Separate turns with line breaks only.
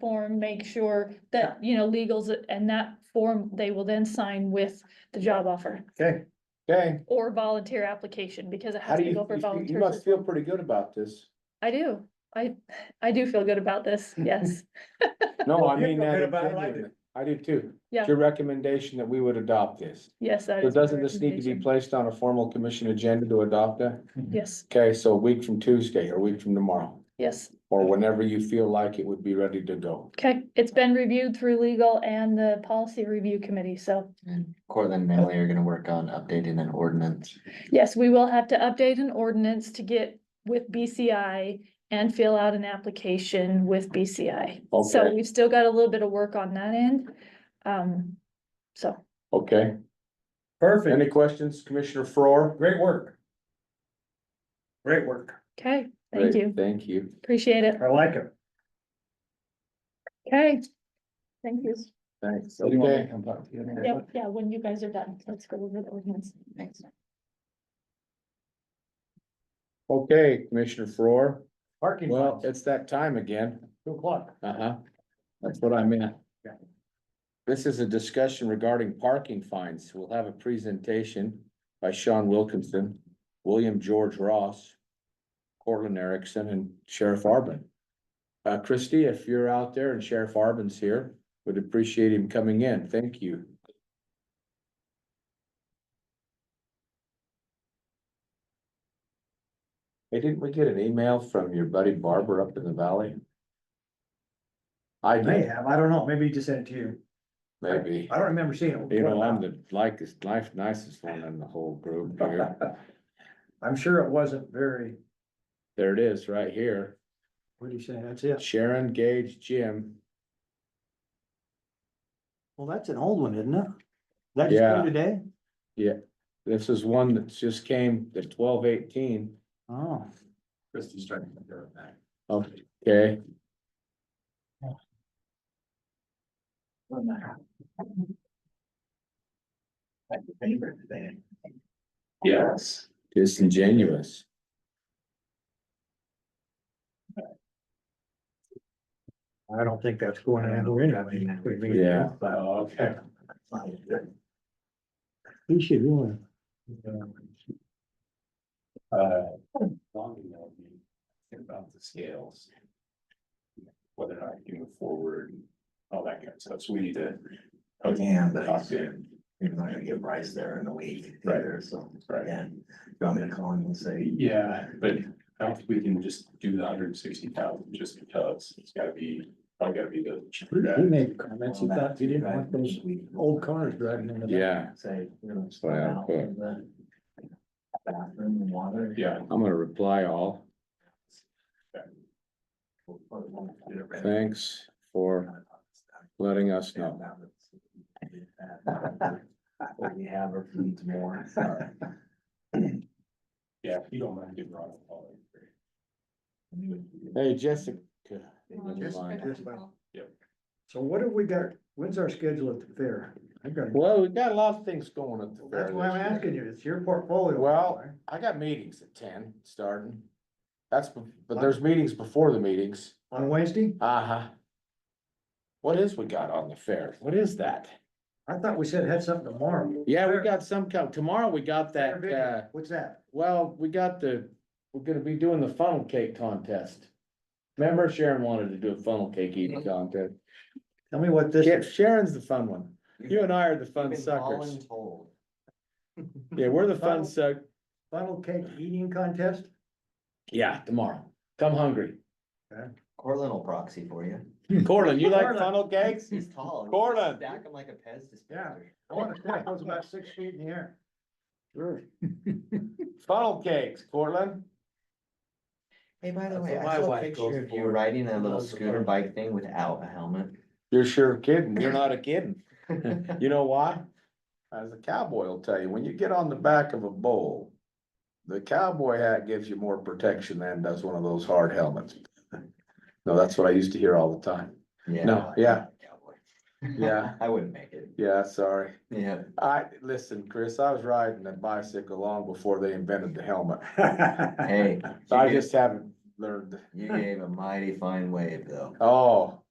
form, make sure that, you know, legals and that form, they will then sign with the job offer
Okay, okay.
or volunteer application because it
How
has
do
to
you,
go for
you- you
volunteers.
must feel pretty good about this.
I do. I, I do feel good about this. Yes.
No, I
You
mean
feel
that.
good
in
about it, I do.
genuine. I do too.
Yeah.
It's Your recommendation that we would adopt this.
Yes. that
So
is my
doesn't this need to be
recommendation.
placed on a formal commission agenda to adopt it?
Yes,
Okay, so a week from Tuesday or a week from tomorrow,
yes.
or whenever you feel like it would be ready to go.
Okay. It's been reviewed through legal and the policy review committee. So
And Cortland and Manley are gonna work on updating an ordinance.
yes, we will have to update an ordinance to get with BCI and fill out an application with BCI. So
Okay.
we've still got a little bit of work on that end. Um, so.
Okay, any
Perfect,
questions, Commissioner Faur?
great work. Great work,
Okay, thank
Great,
you.
Thank you.
Appreciate it.
I like it.
Okay. Thank you.
Thanks.
Do you want me to
Okay,
come talk to you
Yeah,
later?
yeah, when you guys are done, let's go over the ordinance.
Thanks.
okay, Commissioner Faur.
Parking
Well,
lots,
it's that time again.
two o'clock.
Uh-huh. That's what I meant.
Yeah.
This is a discussion regarding parking fines. We'll have a presentation by Sean Wilkinson, William George Ross, Cortland Erickson, and Sheriff Arbin. Uh, Christie, if you're out there and Sheriff Arbin's here, would appreciate him coming in. Thank you. Hey, didn't we get an email from your buddy Barber up in the valley? I
I May
did,
have, I don't know, maybe he just sent it to you.
maybe.
I don't remember seeing it.
You know, I'm the likest, life nicest one in the whole group here.
I'm sure it wasn't very,
There it is, right here.
what do you say, that's it?
Sharon Gage Jim.
Well, that's an old one, isn't it? That
just came Yeah.
today?
This is one that just came, the twelve eighteen.
Oh.
Christie's trying to compare it back.
Okay,
Yes.
disingenuous.
I don't think that's going anywhere anyway.
Yeah.
Oh,
Okay. He should really.
Uh,
About the scales. Whether or not you move forward, all that kind of stuff, so we need to. Yeah, but he's- you're not gonna get Bryce there in a week either, so. Right. And you want me to call him and say,
Yeah, but I don't think we can just do the hundred and sixty thousand just because it's gotta be, probably gotta be the cheaper. guy.
made
that's
comments,
he thought you didn't want those old cars driving into the.
Yeah,
Say. we're gonna
what I
stop out
put.
in the Bathroom and water.
Yeah,
I'm gonna reply all.
We'll put one of the red-
Thanks for letting us
Yeah,
know.
that was- What we have or needs more.
yeah, if you don't mind giving Ron a call. that'd be great.
Hey, Jessica.
So what have we got, when's our schedule at the fair? I've got,
Well, we've got a lot of things going at the fair.
that's why I'm
this year.
asking you, it's your portfolio.
Well, I got meetings at ten starting. That's, bef- but there's meetings before the meetings.
On Wednesday,
Uh-huh. What is we got on the fair? What is that?
I thought we said it had something tomorrow.
Yeah, we got some, co- tomorrow we got that, uh,
What's that?
well, we got the, we're gonna be doing the funnel cake contest. Remember Sharon wanted to do a funnel cake eating contest.
Tell me what this
Yeah,
is.
Sharon's the fun one. You and I are the fun suckers. Yeah, we're the fun suck.
funnel cake eating contest?
Yeah, tomorrow. Come hungry.
Cortland will proxy for you.
Cortland, you like
Cortland.
funnel cakes?
He's tall.
Cortland.
Stack him like a Pez dispenser.
I want to say it was about six feet in the air. Sure.
Funnel cakes, Cortland.
Hey, by the
That's
way,
what
I
my
saw a
wife
picture
goes
of you
for.
riding a little
Loves the
scooter
fun.
bike thing without a helmet.
You're sure kidding. You're not a kidding. You know why? As a cowboy will tell you, when you get on the back of a bull, the cowboy hat gives you more protection than does one of those hard helmets. No, that's what I used to hear all the time.
Yeah.
No, yeah.
Cowboy.
Yeah.
I wouldn't make it.
Yeah, sorry.
Yeah.
I, listen, Chris, I was riding a bicycle long before they invented the helmet.
Hey.
I
you
just haven't learned.
You gave a mighty fine wave though.
Oh,